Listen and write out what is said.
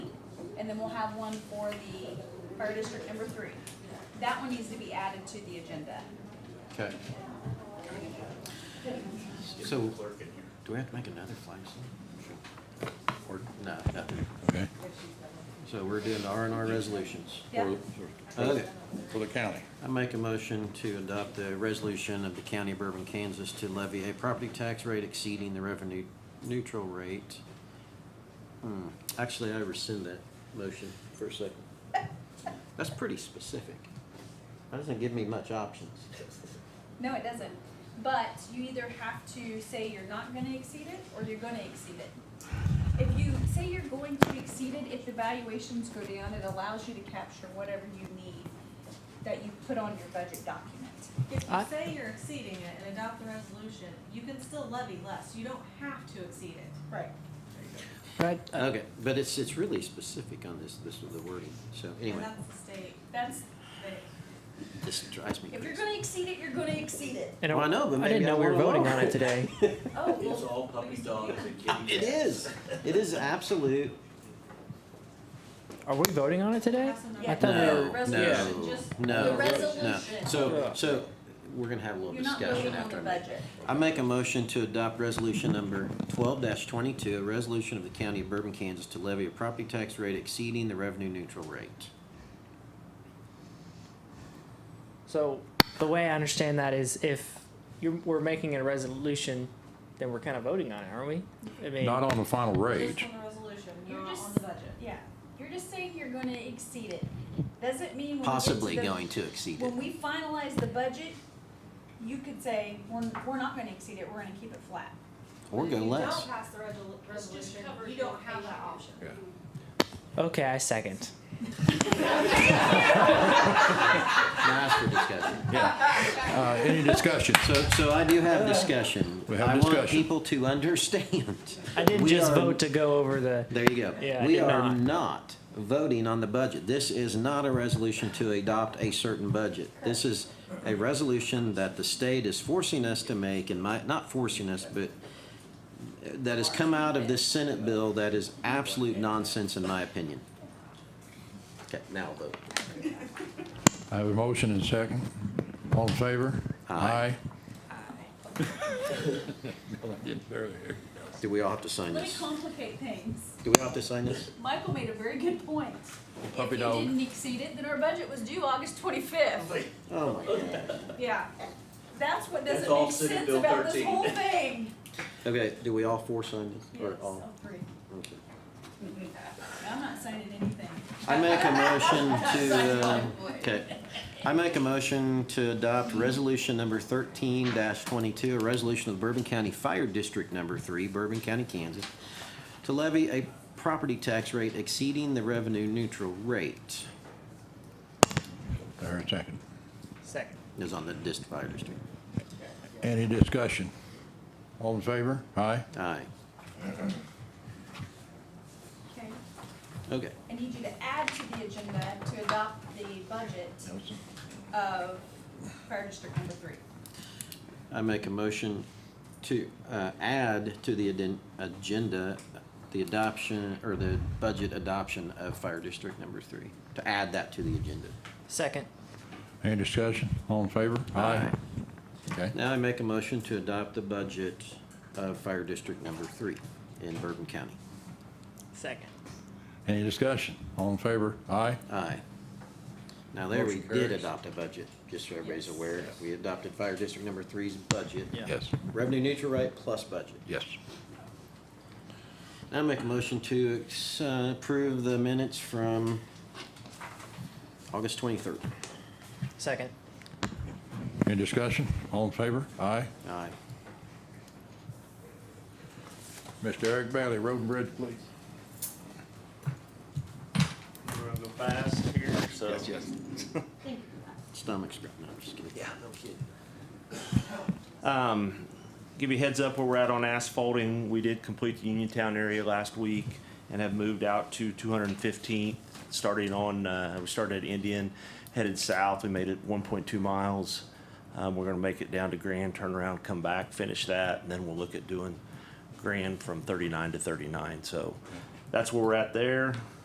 and then we'll have one for the fire district number three. That one needs to be added to the agenda. Okay. So, do we have to make another flag stand? Or, no, nothing. Okay, So we're doing R and R resolutions. Yeah. Okay. for the county. I make a motion to adopt the resolution of the county of Bourbon, Kansas to levy a property tax rate exceeding the revenue neutral rate. Hmm, Actually, I rescind that motion for a second. That's pretty specific. That doesn't give me much options. No, it doesn't. But you either have to say you're not gonna exceed it, or you're gonna exceed it. If you say you're going to exceed it, if the valuations go down, it allows you to capture whatever you need that you put on your budget document. If you I- say you're exceeding it and adopt the resolution, you can still levy less, you don't have to exceed it. Right. Right, Okay, but it's, it's really specific on this, this is the wording, so And anyway, that's the state, That's, they, this drives me if you're crazy. gonna exceed it, you're gonna exceed it. and Well, I know, but I didn't maybe I know we were want voting more. on it today. Oh, It's well, all puppy dogs and kitty It cats. is, it is absolute, Are we voting on it today? have some Yeah. I numbers. thought we were- no, Resolution, no, just no, the no. resolution. So, so, we're gonna have a little you're not discussion voting on the after I make. budget. I make a motion to adopt resolution number twelve twenty-two, a resolution of the county of Bourbon, Kansas to levy a property tax rate exceeding the revenue neutral rate. So the way I understand that is if you're, we're making a resolution, then we're kind of voting on it, aren't we? I mean, Not on the final Just rate. on the resolution, You're not just- on the budget. Yeah, you're just saying you're gonna exceed it. Doesn't mean when we get to Possibly the- going to exceed it. When we finalize the budget, you could say, we're, we're not gonna exceed it, we're gonna keep it flat. Or go If you less. don't pass the resolu- resolution, you don't have that option. Yeah. okay, I second. Now ask for discussion. Uh, any discussion? So, so I do have discussion. We have I want discussion. people to understand. I didn't We just are- vote to go over the. There you go. Yeah, I We did are not. not voting on the budget. This is not a resolution to adopt a certain budget. This is a resolution that the state is forcing us to make and might, not forcing us, but uh, that has come out of this Senate bill that is absolute nonsense in my opinion. Okay, now I'll vote. I have a motion and second. All in favor? Aye. Do we all have to sign Let me this? complicate things. Do we all have to sign this? Michael made a very good point. Puppy If dog. you didn't exceed it, then our budget was due August twenty-fifth. Oh my God. Yeah, that's what That's doesn't all make Senate sense Bill about this 13. whole thing. Okay, do we all four sign this? Or Yes, all? all three. Okay. I'm not signing anything. I make a motion to, uh, okay, I make a motion to adopt resolution number thirteen twenty-two, a resolution of Bourbon County Fire District Number Three, Bourbon County, Kansas, to levy a property tax rate exceeding the revenue neutral rate, There, second. Second. is on the dist fire district. Any discussion? All in favor? Aye. Aye, Okay, okay. I need you to add to the agenda to adopt the budget of fire district number three. I make a motion to uh, add to the aden- agenda, the adoption, or the budget adoption of Fire District Number Three, to add that to the agenda. Second. Any discussion? All in favor? Okay. Now I make a motion to adopt the budget of Fire District Number Three in Bourbon County. Second. Any discussion? All in favor? Aye. Aye. Now there, we Motion did carries. adopt a budget, just so everybody's Yes. aware. We adopted Fire District Number Three's budget. Yeah. Yes, Revenue neutral rate plus budget. yes. I make a motion to ex- uh, approve the minutes from August 23rd. Second. Any discussion? All in favor? Aye. Aye. Mr. Eric Bailey, Road and Bridge, please. We're gonna go fast here, so. Stomach's growling, no, I'm just kidding. Yeah. Um, give you a heads up where we're at on asphalting. We did complete the Uniontown area last week and have moved out to 215th, starting on, uh, we started at Indian, headed south. We made it 1.2 miles. Um, we're gonna make it down to Grand, turn around, come back, finish that, and then we'll look at doing Grand from 39 to 39. So that's where we're at there.